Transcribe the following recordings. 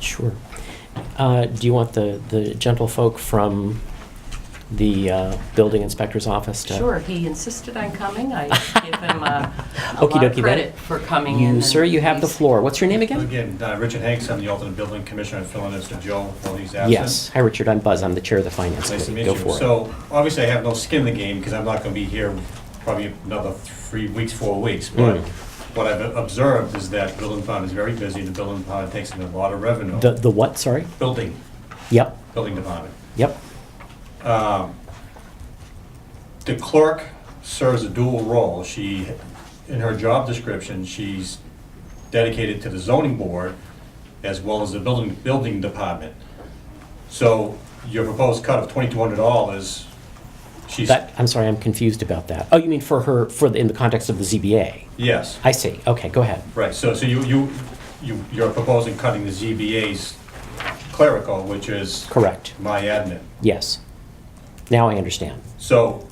Sure. Uh, Do you want the, the gentlefolk from the uh, building inspector's office to? Sure, he insisted on coming. I give him a a lot Okey-dokey of then. credit for coming in. You, and sir, you have the he's- floor. What's your name again? Again, uh, Richard Hanks, I'm the alternate building commissioner, filling in for Joe while he's absent. Yes. Hi, Richard. I'm Buzz. I'm the chair of the finance Nice to committee. meet Go you. for it. So, obviously, I have no skin in the game, because I'm not gonna be here probably another three weeks, four weeks, but Mm. what I've observed is that building fund is very busy, the building fund takes in a lot of revenue. The, the what, sorry? Building, Yep, building department. yep. Um, The clerk serves a dual role. She, in her job description, she's dedicated to the zoning board as well as the building, building department. So your proposed cut of twenty-two hundred dollars, she's, That, I'm sorry, I'm confused about that. Oh, you mean for her, for, the in the context of the ZBA? yes, I see. Okay, go ahead. right, so, so you, you, you, you're proposing cutting the ZBA's clerical, which is Correct. my admin. Yes. Now I understand. So,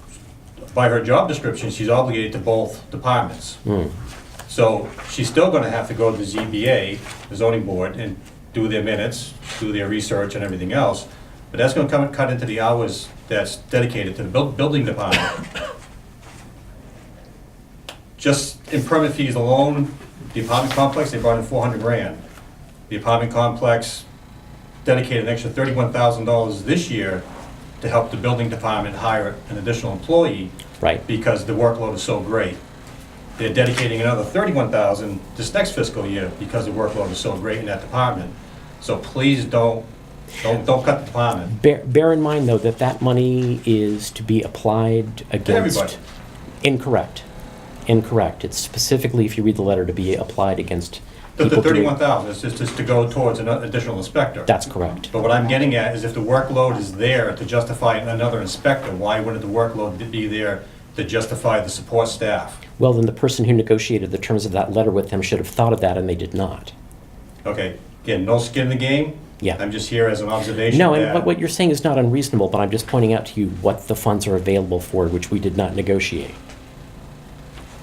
by her job description, she's obligated to both departments. So, she's still gonna have to go to the ZBA, the zoning board, and do their minutes, do their research and everything else. But that's gonna come, cut into the hours that's dedicated to the buil- building department. Just in permit fees alone, the apartment complex, they brought in four hundred grand. The apartment complex dedicated an extra thirty-one thousand dollars this year to help the building department hire an additional employee Right. because the workload is so great. They're dedicating another thirty-one thousand this next fiscal year because the workload is so great in that department. So please don't, don't, don't cut the department. Bear, bear in mind, though, that that money is to be applied against. everybody. Incorrect. Incorrect. It's specifically, if you read the letter, to be applied against The people doing- thirty-one thousand is just, just to go towards an additional inspector. That's correct. But what I'm getting at is if the workload is there to justify another inspector, why wouldn't the workload be there to justify the support staff? Well, then the person who negotiated the terms of that letter with them should have thought of that, and they did not. Okay, again, no skin in the game? Yeah. I'm just here as an observation. No, and that- what, what you're saying is not unreasonable, but I'm just pointing out to you what the funds are available for, which we did not negotiate.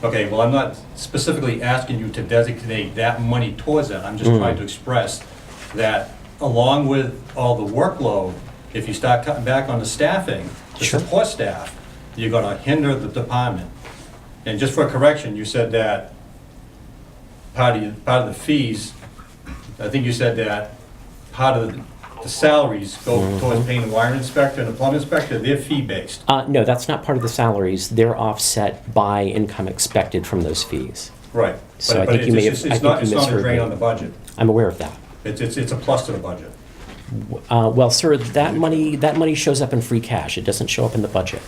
Okay, well, I'm not specifically asking you to designate that money towards that. I'm just Mm. trying to express that along with all the workload, if you start cutting back on the staffing, the Sure. support staff, you're gonna hinder the department. And just for correction, you said that part of, part of the fees, I think you said that part of the salaries Mm-hmm. go towards paying the wire inspector and the plumbing inspector, they're fee-based. Uh, no, that's not part of the salaries. They're offset by income expected from those fees. Right. So I But- but think you it's- may have- it's- I It's think not, you it's not a misheard drain me. on the budget. I'm aware of that. It's, it's, it's a plus to the budget. Uh, well, sir, that money, that money shows up in free cash. It doesn't show up in the budget.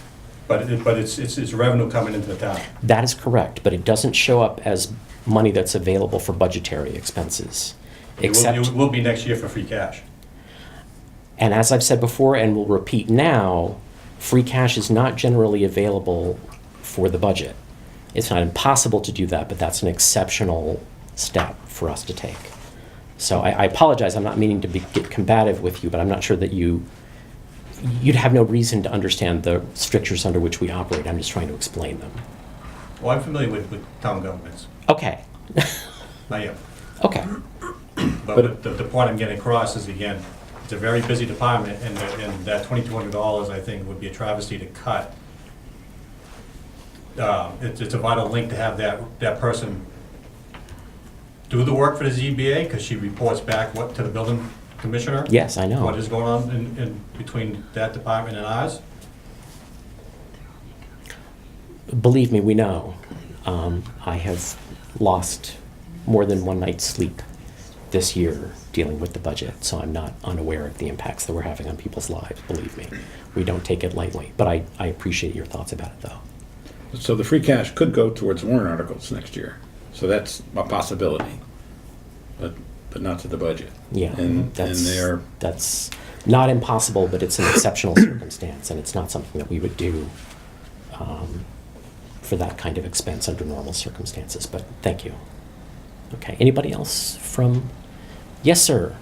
But it, but it's, it's, it's revenue coming into the town. That is correct, but it doesn't show up as money that's available for budgetary expenses. It will- Except, It will be next year for free cash. and as I've said before and will repeat now, free cash is not generally available for the budget. It's not impossible to do that, but that's an exceptional step for us to take. So I, I apologize, I'm not meaning to be, get combative with you, but I'm not sure that you, you'd have no reason to understand the strictures under which we operate. I'm just trying to explain them. Well, Oh, I'm familiar with, with town governments. Okay, I am. okay. But what the, the point I'm getting across is again, it's a very busy department and, the- and that twenty-two hundred dollars, I think, would be a travesty to cut. Uh, it's, it's a vital link to have that, that person do the work for the ZBA, cause she reports back what, to the building commissioner? Yes, I know. What is going on in, in between that department and ours? Believe me, we know. Um, I have lost more than one night's sleep this year dealing with the budget, so I'm not unaware of the impacts that we're having on people's lives. Believe me, we don't take it lightly. But I, I appreciate your thoughts about it, though. So the free cash could go towards warrant articles next year. So that's a possibility, but, but not to the budget. Yeah, And, and that's they're, that's not impossible, but it's an exceptional circumstance, and it's not something that we would do um, for that kind of expense under normal circumstances. But thank you. Okay. Anybody else from? Yes, sir.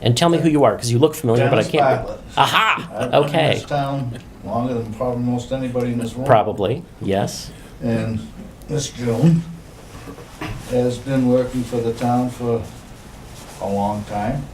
And tell me who you are, because you look familiar, but I Dennis can't. Bartlett. Aha. I've been in Okay. this town longer than probably most anybody in this room. Probably. Yes. And Miss June has been working for the town for a long time.